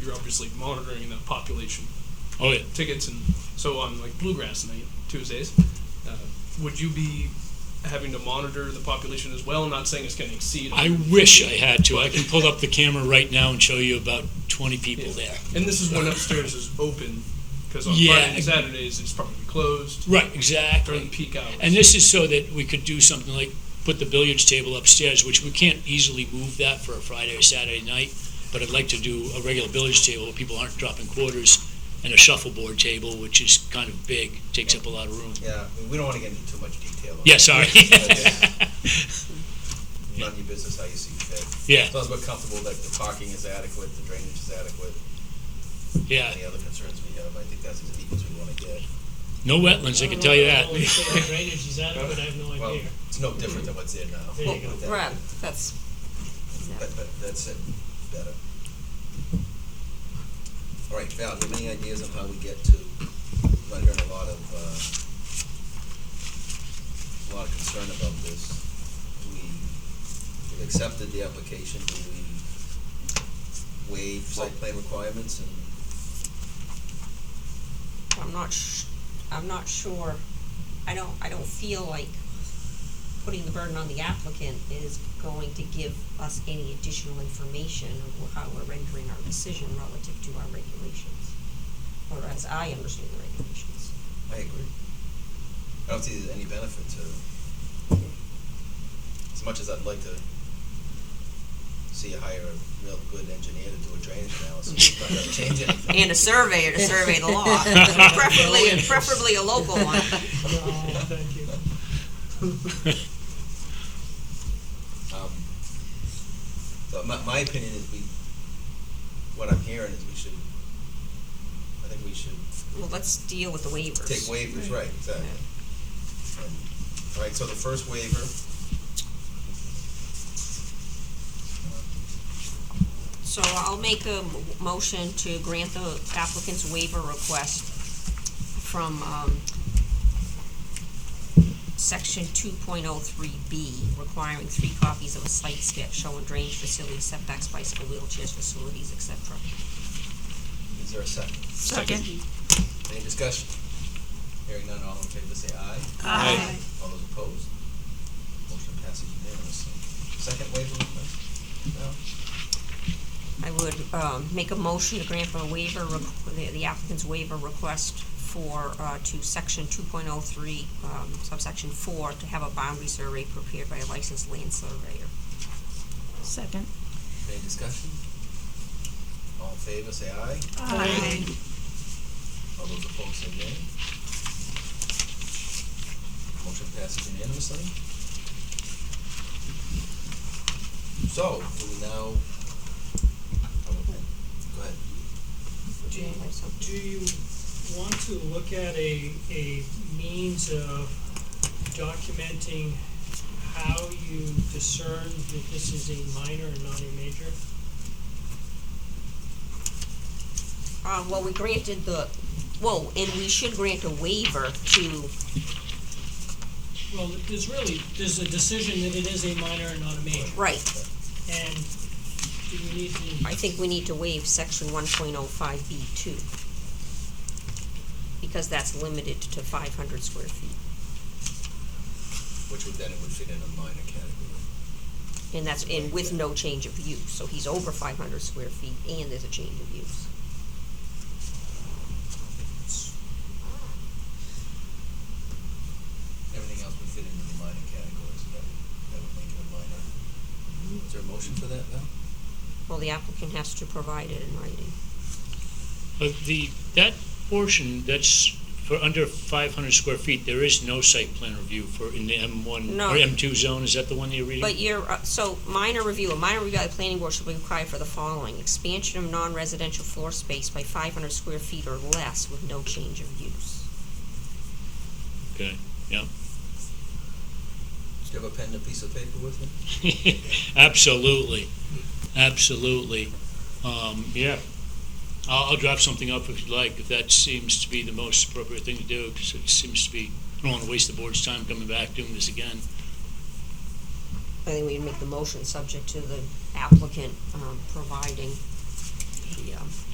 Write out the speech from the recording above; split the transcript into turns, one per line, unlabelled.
you're obviously monitoring the population
Oh, yeah.
tickets and so on like bluegrass night Tuesdays. Uh, would you be having to monitor the population as well? Not saying it's going to exceed.
I wish I had to. I can pull up the camera right now and show you about 20 people there.
And this is when upstairs is open because on
Yeah.
Friday and Saturdays it's probably closed
Right,
during
exactly.
peak hours.
And this is so that we could do something like put the billiards table upstairs, which we can't easily move that for a Friday or Saturday night. But I'd like to do a regular billiards table where people aren't dropping quarters and a shuffleboard table, which is kind of big, takes up a lot of room.
Yeah, I mean, we don't want to get into too much detail.
Yeah, sorry.
But, uh, None of your business how you see fit.
Yeah,
As long as we're comfortable that the parking is adequate, the drainage is adequate,
yeah.
any other concerns we have, I think that's as deep as we want to get.
No wetlands, I can tell you that.
When you say the drainage is adequate, I have no
Well,
idea.
it's no different than what's there now.
There you go.
That-
Right, that's, yeah.
that- that- that's it, better. All right, Val, do you have any ideas on how we get to, I'm hearing a lot of, uh, a lot of concern about this. Do we, we've accepted the application, do we waive site plan requirements and?
I'm not sh- I'm not sure, I don't, I don't feel like putting the burden on the applicant is going to give us any additional information of how we're rendering our decision relative to our regulations, or as I understand the regulations.
I agree. I don't see any benefit to, as much as I'd like to see you hire a real good engineer to do a drainage analysis, it's not gonna change anything.
And a surveyor to survey the law, preferably, preferably a local one.
No, thank you.
Um, So my, my opinion is we, what I'm hearing is we should, I think we should
Well, let's deal with the waivers.
take waivers, right, exactly. And- All right, so the first waiver. Uh,
So I'll make a m- motion to grant the applicant's waiver request from, um, section two point oh three B, requiring three copies of a site sketch showing drainage facility setbacks, bicycle wheelchairs, facilities, et cetera.
Is there a second?
Second.
Any discussion? Hearing none, all in favor, say aye.
Aye.
All those opposed? Motion passes unanimously. Second waiver request? No?
I would, um, make a motion to grant the waiver, requ- the- the applicant's waiver request for, uh, to section two point oh three, um, subsection four, to have a boundary survey prepared by a licensed land surveyor.
Second.
Any discussion? All in favor, say aye.
Aye.
All those opposed, say nay. Motion passes unanimously. So, do we now? oh, Go ahead.
Do you, do you want to look at a, a means of documenting how you discern that this is a minor and not a major?
Uh, well, we granted the, whoa, and we should grant a waiver to,
Well, there's really, there's a decision that it is a minor and not a major,
right,
and do we need to?
I think we need to waive section one point oh five B two. Because that's limited to five hundred square feet,
Which would then, it would fit in a minor category.
and that's, and with no change of use, so he's over five hundred square feet and there's a change of use.
Everything else would fit into the minor category, so that would, that would make it a minor. Is there a motion for that, Val?
Well, the applicant has to provide it in writing.
But the, that portion, that's for under five hundred square feet, there is no site plan review for, in the M one
No.
or M two zone, is that the one that you're reading?
But you're, uh, so minor review, a minor review by the planning board should be required for the following, expansion of non-residential floor space by five hundred square feet or less with no change of use.
Okay, yeah.
Do you have a pen and a piece of paper with you?
Absolutely, absolutely. Um, yeah. I'll, I'll drop something up if you'd like, if that seems to be the most appropriate thing to do, because it seems to be, I don't want to waste the board's time coming back doing this again.
I think we can make the motion subject to the applicant, um, providing the, um,